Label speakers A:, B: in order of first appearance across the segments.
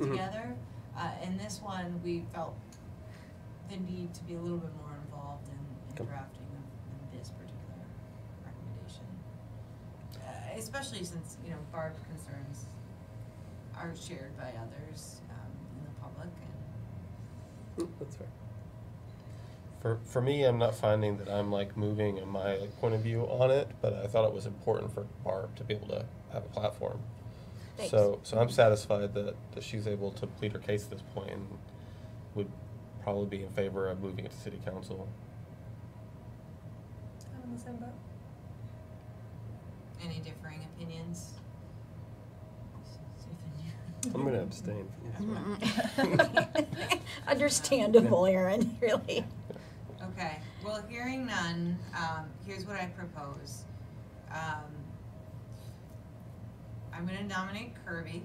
A: Mm-hmm.
B: together. Uh, in this one, we felt the need to be a little bit more involved in,
A: Okay.
B: in drafting of, of this particular recommendation. Uh, especially since, you know, Barb's concerns are shared by others, um, in the public and,
A: Mm, That's fair.
C: For, for me, I'm not finding that I'm like moving in my point of view on it, but I thought it was important for Barb to be able to have a platform.
D: Thanks.
C: So, so I'm satisfied that, that she's able to plead her case at this point and would probably be in favor of moving it to city council.
E: I'm in the same boat.
B: any differing opinions.
A: I'm gonna abstain from this one.
D: Mm. Understandable, Erin, really.
B: Okay, well, hearing none, um, here's what I propose. Um, I'm gonna nominate Kirby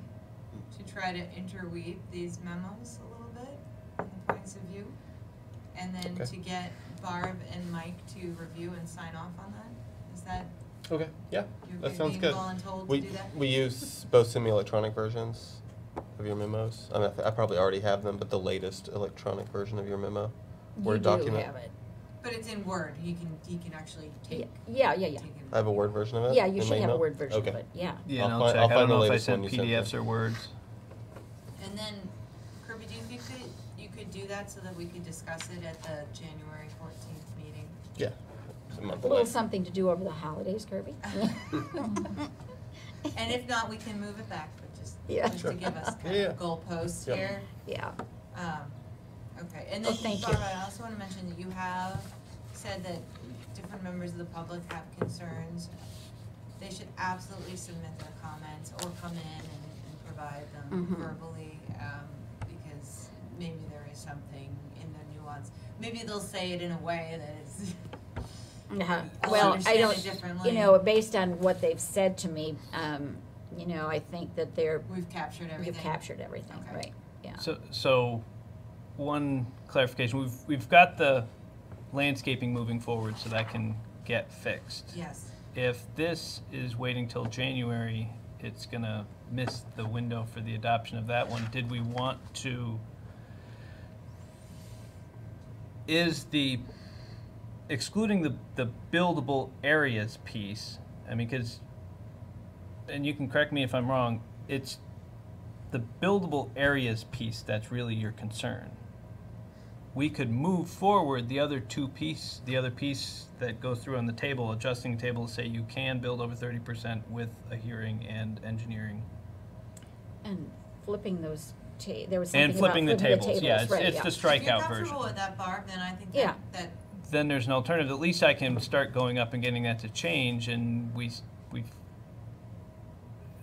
B: to try to interweave these memos a little bit, and points of view. And then
C: Okay.
B: to get Barb and Mike to review and sign off on that, is that,
C: Okay, yeah,
B: you're
C: that sounds
B: being
C: good.
B: voluntold to
C: We,
B: do that?
C: we use both semi-electronic versions of your memos. I mean, I th- I probably already have them, but the latest electronic version of your memo. Word
D: You do
C: document.
D: have it.
B: But it's in Word, he can, he can actually take.
D: Yeah, yeah, yeah.
B: take it.
C: I have a Word version of it.
D: Yeah,
C: Uh,
D: you
C: in my
D: should have a
C: email?
D: Word version of
C: Okay.
D: it, yeah.
F: Yeah,
C: I'll
F: and I'll
C: find-
F: check.
C: I'll
F: I
C: find the
F: don't know if I
C: latest one
F: sent
C: you sent
F: PDFs
C: me.
F: or words.
B: And then, Kirby, do you think that you could do that so that we could discuss it at the January fourteenth meeting?
C: Yeah, it's a month
D: A little
C: away.
D: something to do over the holidays, Kirby.
B: And if not, we can move it back, but just,
D: Yeah.
B: just to give us kind
C: Yeah, yeah.
B: of goalposts
C: Yep.
B: here.
D: Yeah,
B: Um, okay, and
D: Well,
B: then
D: thank you.
B: Barbara, I also wanna mention that you have said that different members of the public have concerns. They should absolutely submit their comments or come in and, and provide them
D: Mhm.
B: verbally, um, because maybe there is something in the nuance. Maybe they'll say it in a way that is,
D: Uh-huh.
B: I'll
D: well, I
B: understand it
D: don't, you
B: differently.
D: know, based on what they've said to me, um, you know, I think that they're,
B: we've captured everything.
D: you've captured everything,
B: Okay.
D: right, yeah.
F: So, so one clarification: we've we've got the landscaping moving forward, so that can get fixed.
B: Yes,
F: If this is waiting till January, it's gonna miss the window for the adoption of that one. Did we want to? Is the excluding the the buildable areas piece? I mean, because, and you can correct me if I'm wrong. It's the buildable areas piece that's really your concern. We could move forward the other two piece, the other piece that goes through on the table, adjusting table, say you can build over thirty percent with a hearing and engineering.
D: And flipping those ta, there was something
F: And
D: about flipping
F: flipping the
D: the
F: tables, yeah,
D: tables,
F: it's,
D: right,
F: it's
D: yeah.
F: the
B: if you're
F: strikeout version.
B: comfortable with that, Barb, then I think
D: Yeah.
B: that, that
F: Then there's an alternative, at least I can start going up and getting that to change and we, s- we,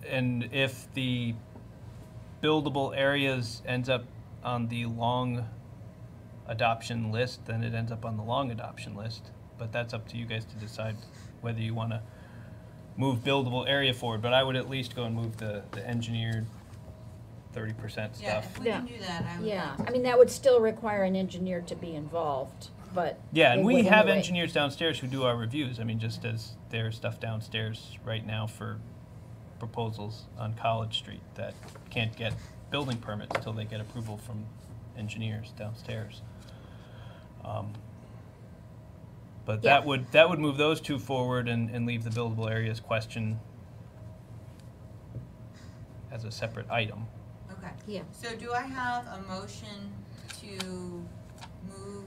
F: and if the buildable areas ends up on the long adoption list, then it ends up on the long adoption list. But that's up to you guys to decide whether you want to move buildable area forward. But I would at least go and move the, the engineered thirty percent
B: Yeah,
F: stuff.
B: if we can do that, I would.
D: Yeah,
B: like
D: I
B: to.
D: mean, that would still require an engineer to be involved, but.
F: Yeah,
D: it
F: and we
D: wouldn't
F: have
D: wait.
F: engineers downstairs who do our reviews. I mean, just as there's stuff downstairs right now for proposals on College Street that can't get building permits till they get approval from engineers downstairs. Um, But that
D: Yeah.
F: would, that would move those two forward and, and leave the buildable areas question as a separate item.
B: Okay,
D: Yeah,
B: so do I have a motion to move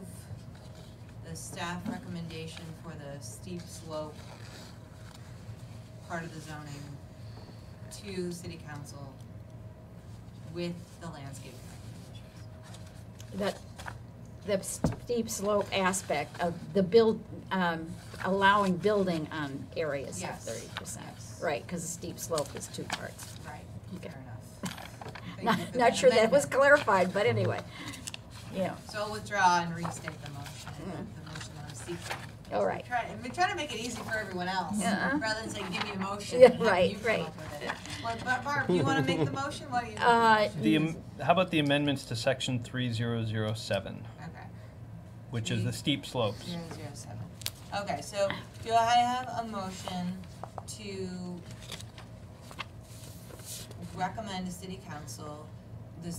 B: the staff recommendation for the steep slope part of the zoning to city council with the landscape recommendations?
D: that, the steep slope aspect of the build, um, allowing building on areas of
B: Yes,
D: thirty percent.
B: yes.
D: Right, because the steep slope is two parts.
B: Right,
D: Okay.
B: fair enough. Thank you
D: Not,
B: for
D: not sure that was
B: amendment.
D: clarified, but anyway, yeah.
B: So I'll withdraw and restate the motion, the
D: Mm-hmm.
B: motion that I'm seeking.
D: All right.
B: Try, I'm trying to make it easy for everyone else,
D: Yeah.
B: rather than say, give me a motion,
D: Yeah,
B: and have
D: right,
B: you come up with it. Well, but Barb, you wanna make the motion, why do you?
D: Uh,
F: The, am- how about the amendments to section three zero zero seven,
B: Okay,
F: which is the steep slopes?
B: zero, zero, seven. Okay, so do I have a motion to recommend to city council the